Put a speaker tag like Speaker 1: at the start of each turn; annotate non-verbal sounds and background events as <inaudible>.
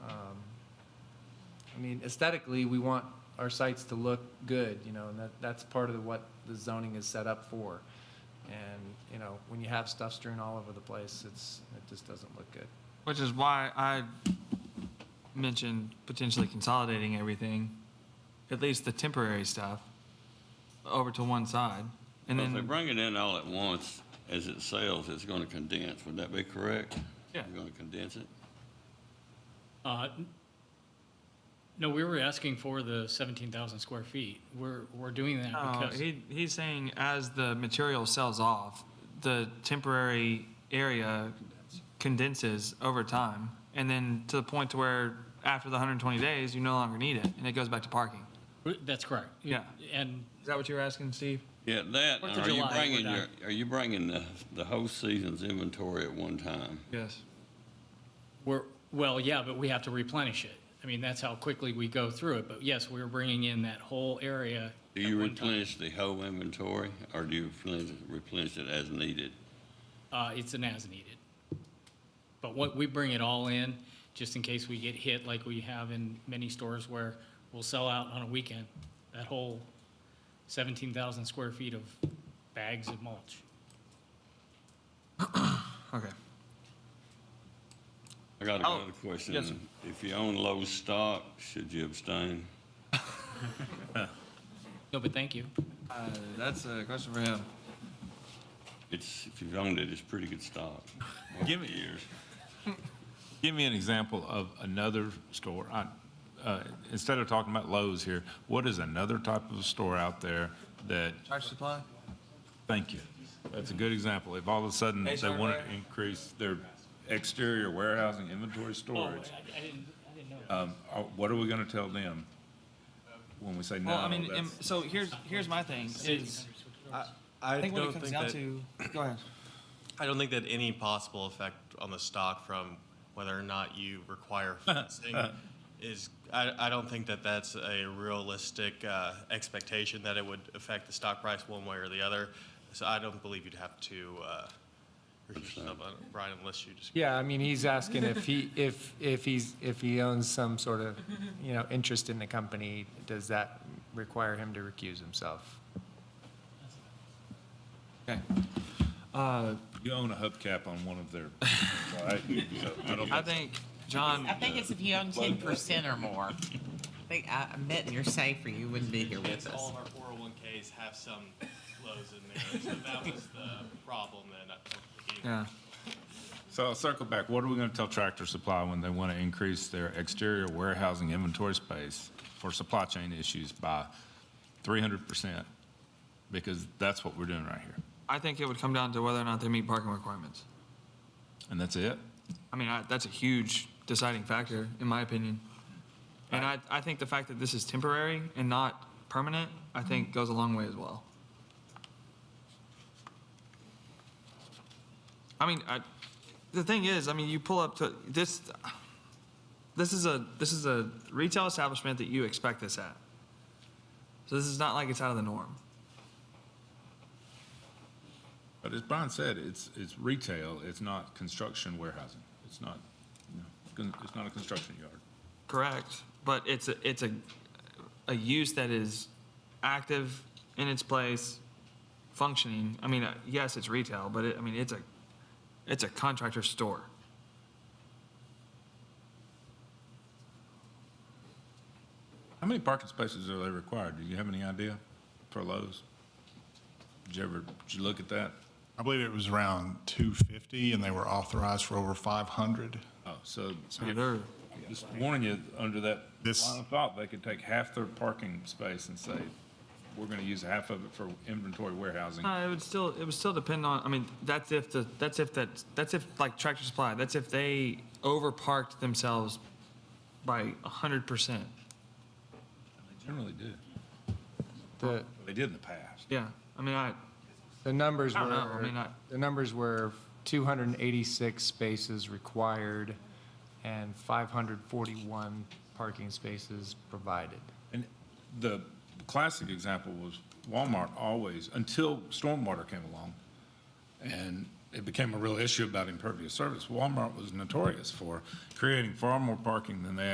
Speaker 1: Um, mean, aesthetically, we want our sites to look good, you know, and that, that's part of what the zoning is set up for. And, you know, when you have stuff strewn all over the place, it's, it just doesn't look good.
Speaker 2: Which is why I mentioned potentially consolidating everything, at least the temporary stuff, over to one side. And
Speaker 3: Well, If they
Speaker 2: then,
Speaker 3: bring it in all at once, as it sells, it's gonna condense, would that be correct?
Speaker 2: Yeah.
Speaker 3: You're gonna condense it?
Speaker 4: Uh, n- No, we were asking for the 17,000 square feet. We're, we're doing that
Speaker 2: no,
Speaker 4: because,
Speaker 2: Oh, he, he's saying as the material sells off, the temporary area condenses over time. And then to the point to where after the 120 days, you no longer need it and it goes back to parking.
Speaker 4: that's correct.
Speaker 2: Yeah.
Speaker 4: And
Speaker 2: Is that what you were asking, Steve?
Speaker 3: Yeah, that,
Speaker 4: Fourth of
Speaker 3: are you
Speaker 4: July, we're
Speaker 3: bringing your,
Speaker 4: done.
Speaker 3: are you bringing the, the whole season's inventory at one time?
Speaker 2: Yes.
Speaker 4: we're, well, yeah, but we have to replenish it. I mean, that's how quickly we go through it. But yes, we're bringing in that whole area.
Speaker 3: Do
Speaker 4: at
Speaker 3: you
Speaker 4: one time.
Speaker 3: replenish the whole inventory, or do you replenish, replenish it as needed?
Speaker 4: Uh, It's an as needed. But what, we bring it all in, just in case we get hit like we have in many stores where we'll sell out on a weekend, that whole 17,000 square feet of bags of mulch.
Speaker 2: Okay.
Speaker 3: I got
Speaker 2: Oh,
Speaker 3: another question.
Speaker 2: yes, sir.
Speaker 3: If you own low stock, should you abstain?
Speaker 4: No, but thank you.
Speaker 2: Uh, that's a question for him.
Speaker 3: It's, if you've owned it, it's pretty good stock.
Speaker 5: Give me-
Speaker 3: Years.
Speaker 5: Give me an example of another store. I, uh, instead of talking about Lowe's here, what is another type of store out there that,
Speaker 2: Tractor Supply?
Speaker 5: thank you. That's a good example. If all of a sudden they
Speaker 2: H.R.
Speaker 5: want
Speaker 2: Mayer?
Speaker 5: to increase their exterior warehousing inventory storage,
Speaker 2: Oh,
Speaker 4: I didn't, I didn't know.
Speaker 5: um, uh, what are we going to tell them when we say no?
Speaker 2: Well, I mean,
Speaker 5: that's-
Speaker 2: am- so here's, here's my thing is,
Speaker 6: I,
Speaker 2: I think when
Speaker 6: don't
Speaker 2: it comes
Speaker 6: think
Speaker 2: down
Speaker 6: that,
Speaker 2: to, go ahead.
Speaker 6: I don't think that any possible effect on the stock from whether or not you
Speaker 2: <laughs>
Speaker 6: require fencing is, I, I don't think that that's a realistic uh, expectation that it would affect the stock price one way or the other. So I don't believe you'd have to uh, refuse yourself, uh, Brian, unless you just.
Speaker 1: Yeah, I mean, he's asking if he, <laughs> if, if he's, if he owns some sort of, you know, interest in the company, does that require him to recuse himself?
Speaker 2: Okay.
Speaker 5: You own a hubcap on one of their,
Speaker 2: <laughs>
Speaker 5: right? So I don't-
Speaker 2: I think, John,
Speaker 7: Um, I think it's if you own ten percent or more. I think, I I bet you're safer, you wouldn't be here with
Speaker 6: All
Speaker 7: us.
Speaker 6: of our 401Ks have some flows in there, so that was the problem that I think
Speaker 2: yeah,
Speaker 5: So I'll circle back. What are we going to tell Tractor Supply when they want to increase their exterior warehousing inventory space for supply chain issues by 300%? Because that's what we're doing right here.
Speaker 2: I think it would come down to whether or not they meet parking requirements.
Speaker 5: And that's it?
Speaker 2: I mean, I, that's a huge deciding factor, in my opinion. And I, I think the fact that this is temporary and not permanent, I think goes a long way as well. I mean, I, the thing is, I mean, you pull up to this. This is a this is a retail establishment that you expect this at. So this is not like it's out of the norm.
Speaker 5: But as Brian said, it's, it's retail, it's not construction warehousing. It's not, you know, it's gonna- it's not a construction yard.
Speaker 2: Correct, but it's a, it's a, a use that is active in its place, functioning. I mean, uh, yes, it's retail, but it, I mean, it's a, it's a contractor store.
Speaker 5: How many parking spaces are they required? Do you have any idea for Lowe's? Did you ever, did you look at that?
Speaker 8: I believe it was around 250, and they were authorized for over 500.
Speaker 5: Oh, so
Speaker 2: So they're,
Speaker 5: Just warning you, under that
Speaker 8: This-
Speaker 5: line of thought, they could take half their parking space and say, we're gonna use half of it for inventory warehousing.
Speaker 2: uh, it would still, it would still depend on, I mean, that's if the, that's if that, that's if like Tractor Supply, that's if they overparked themselves by a hundred percent.
Speaker 5: They generally do.
Speaker 1: The,
Speaker 5: They did in the past.
Speaker 2: Yeah, I mean, I,
Speaker 1: The numbers
Speaker 2: I
Speaker 1: were,
Speaker 2: don't know, I mean, I-
Speaker 1: the numbers were 286 spaces required and 541 parking spaces provided.
Speaker 5: And the classic example was Walmart always, until stormwater came along, and it became a real issue about impervious surface, Walmart was notorious for creating far more parking than they